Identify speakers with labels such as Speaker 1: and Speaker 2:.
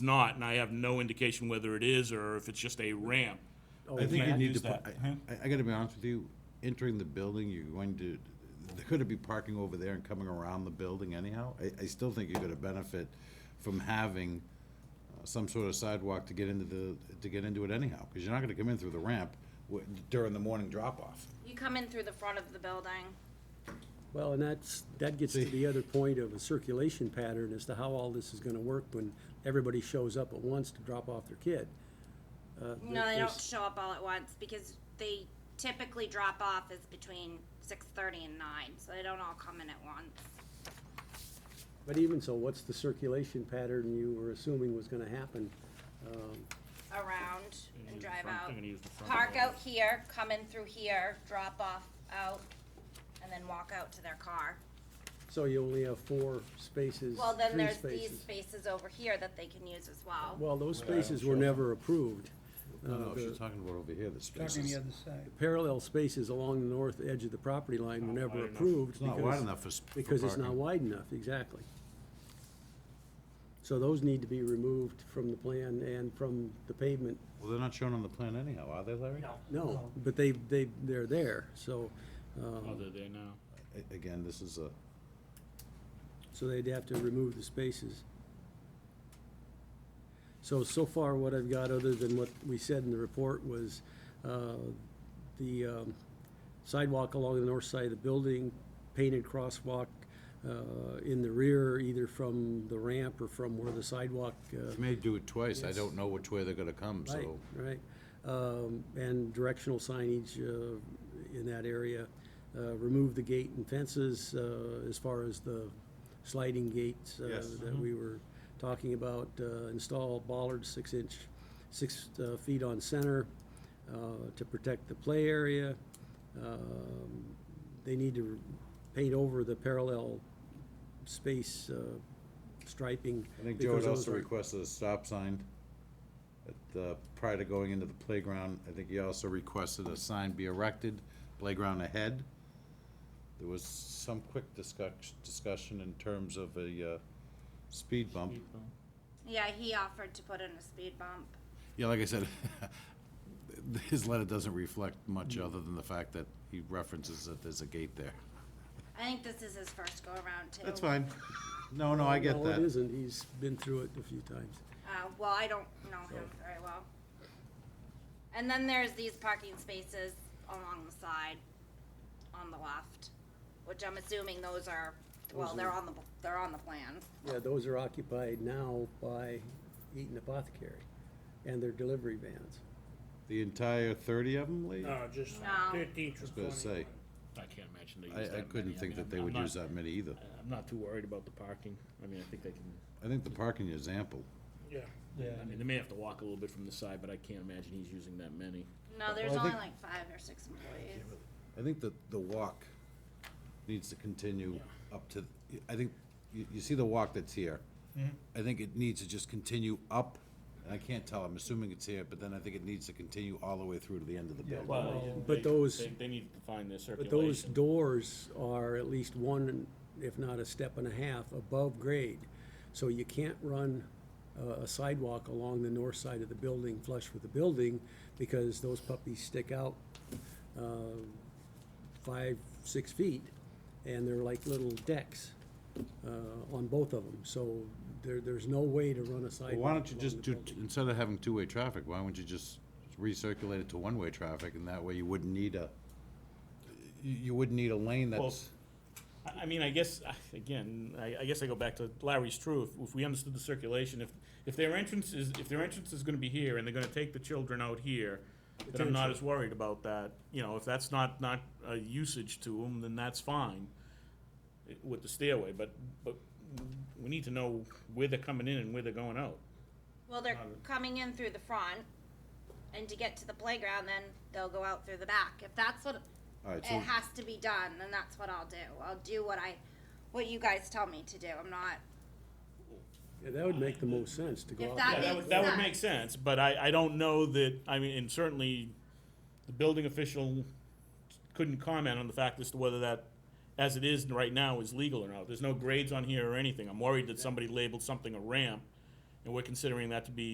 Speaker 1: not, and I have no indication whether it is or if it's just a ramp.
Speaker 2: Oh,
Speaker 3: I think you
Speaker 1: Matt
Speaker 3: need to,
Speaker 1: used
Speaker 3: put-
Speaker 1: that.
Speaker 3: I, I gotta be honest with you, entering the building, you're going to, there could be parking over there and coming around the building anyhow. I, I still think you're gonna benefit from having uh, some sort of sidewalk to get into the, to get into it anyhow, because you're not gonna come in through the ramp wi- during the morning drop-off.
Speaker 4: You come in through the front of the building.
Speaker 2: Well, and that's, that gets to the other point of a circulation pattern as to how all this is gonna work when everybody shows up at once to drop off their kid. Uh,
Speaker 4: No, they don't
Speaker 2: there's-
Speaker 4: show up all at once because they typically drop off is between six thirty and nine, so they don't all come in at once.
Speaker 2: But even so, what's the circulation pattern you were assuming was gonna happen? Um,
Speaker 4: Around
Speaker 1: I'm gonna use
Speaker 4: and
Speaker 1: the
Speaker 4: drive
Speaker 1: front-
Speaker 4: out.
Speaker 1: I'm gonna use the front
Speaker 4: Park
Speaker 1: door.
Speaker 4: out here, come in through here, drop off out, and then walk out to their car.
Speaker 2: So you only have four spaces,
Speaker 4: Well, then
Speaker 2: three
Speaker 4: there's these
Speaker 2: spaces.
Speaker 4: spaces over here that they can use as well.
Speaker 2: Well, those spaces were never approved.
Speaker 3: No,
Speaker 2: Uh,
Speaker 3: no,
Speaker 2: the-
Speaker 3: she's talking about over here, the
Speaker 5: Talking the
Speaker 3: spaces.
Speaker 5: other side.
Speaker 2: Parallel spaces along the north edge of the property line were never approved.
Speaker 3: It's not
Speaker 2: because-
Speaker 3: wide enough for, s- for
Speaker 2: Because it's not
Speaker 3: parking.
Speaker 2: wide enough, exactly. So those need to be removed from the plan and from the pavement.
Speaker 3: Well, they're not shown on the plan anyhow, are they, Larry? No.
Speaker 2: No, but they, they, they're there, so,
Speaker 3: Uh-huh.
Speaker 2: um,
Speaker 1: Other than now.
Speaker 3: Again, this is a,
Speaker 2: so they'd have to remove the spaces. So, so far, what I've got, other than what we said in the report, was uh, the um, sidewalk along the north side of the building, painted crosswalk uh, in the rear, either from the ramp or from where the sidewalk uh,
Speaker 3: you may do it twice, I
Speaker 2: Yes.
Speaker 3: don't know which way they're gonna come,
Speaker 2: Right,
Speaker 3: so.
Speaker 2: right. Um, And directional signage uh, in that area. Uh, Remove the gate and fences uh, as far as the sliding gates uh,
Speaker 3: Yes.
Speaker 2: that we were talking about. Uh, Install bollards six inch, six uh, feet on center uh, to protect the play area. Um, They need to paint over the parallel space uh, striping.
Speaker 3: I think Joe
Speaker 2: because
Speaker 3: had
Speaker 2: those
Speaker 3: also
Speaker 2: are-
Speaker 3: requested a stop sign at the, prior to going into the playground. I think he also requested a sign be erected, playground ahead. There was some quick discuss, discussion in terms of a, uh, speed bump.
Speaker 4: Yeah, he offered to put in a speed bump.
Speaker 3: Yeah, like I said, his letter doesn't reflect much other than the fact that he references that there's a gate there.
Speaker 4: I think this is his first go around too.
Speaker 3: That's fine. No, no, I get
Speaker 2: No, it
Speaker 3: that.
Speaker 2: isn't. He's been through it a few times.
Speaker 4: Uh, well, I don't know him very well. And then there's these parking spaces along the side, on the left, which I'm assuming those are, well, they're on the, they're on the plan.
Speaker 2: Yeah, those are occupied now by Eaton Apothecary and their delivery vans.
Speaker 3: The entire thirty of them, Lee? I
Speaker 5: No, just
Speaker 4: No.
Speaker 5: thirteen
Speaker 3: was
Speaker 5: through
Speaker 3: gonna say,
Speaker 5: twenty-one.
Speaker 1: I can't imagine they use that
Speaker 3: I, I couldn't
Speaker 1: many. mean,
Speaker 3: think that they
Speaker 1: I'm
Speaker 3: would
Speaker 1: not-
Speaker 3: use that many either.
Speaker 1: I'm not too worried about the parking. I mean, I think they can,
Speaker 3: I think the parking is ample.
Speaker 5: Yeah.
Speaker 1: I mean, they may have to walk a little bit from the side, but I can't imagine he's using that many.
Speaker 4: No, there's
Speaker 3: Well, I
Speaker 4: only
Speaker 3: think-
Speaker 4: like five or six employees.
Speaker 3: I think that the walk needs to continue up to, I think, you, you see the walk that's here. I think it needs to just continue up, and I can't tell, I'm assuming it's here, but then I think it needs to continue all the way through to the end of the building.
Speaker 1: Well,
Speaker 2: But
Speaker 1: they-
Speaker 2: those-
Speaker 1: They, they need to find their
Speaker 2: But those
Speaker 1: circulation.
Speaker 2: doors are at least one, if not a step and a half, above grade. So you can't run a- a sidewalk along the north side of the building flush with the building because those puppies stick out uh, five, six feet, and they're like little decks uh, on both of them. So there, there's no way to run a sidewalk.
Speaker 3: Why don't you
Speaker 2: along
Speaker 3: just
Speaker 2: the
Speaker 3: do,
Speaker 2: building.
Speaker 3: instead of having two-way traffic, why wouldn't you just recirculate it to one-way traffic, and that way you wouldn't need a, you, you wouldn't need a lane that's,
Speaker 1: I, I mean, I guess, I- again, I, I guess I go back to Larry's true, if, if we understood the circulation, if, if their entrance is, if their entrance is gonna be here and they're gonna take the children out here, then I'm not as worried about that, you know, if that's not, not a usage to them, then that's fine eh, with the stairway, but, but we need to know where they're coming in and where they're going out.
Speaker 4: Well, they're coming in through the front, and to get to the playground, then they'll go out through the back. If that's what
Speaker 3: All right,
Speaker 4: it
Speaker 3: so-
Speaker 4: has to be done, then that's what I'll do. I'll do what I, what you guys tell me to do. I'm not
Speaker 2: Yeah, that would make the most sense to go
Speaker 4: If
Speaker 2: out.
Speaker 1: Yeah,
Speaker 2: there.
Speaker 4: that
Speaker 1: that
Speaker 4: makes
Speaker 1: would, that would
Speaker 4: sense.
Speaker 1: make sense, but I, I don't know that, I mean, and certainly, the building official couldn't comment on the fact as to whether that, as it is right now, is legal or not. There's no grades on here or anything. I'm worried that somebody labeled something a ramp, And we're considering that to be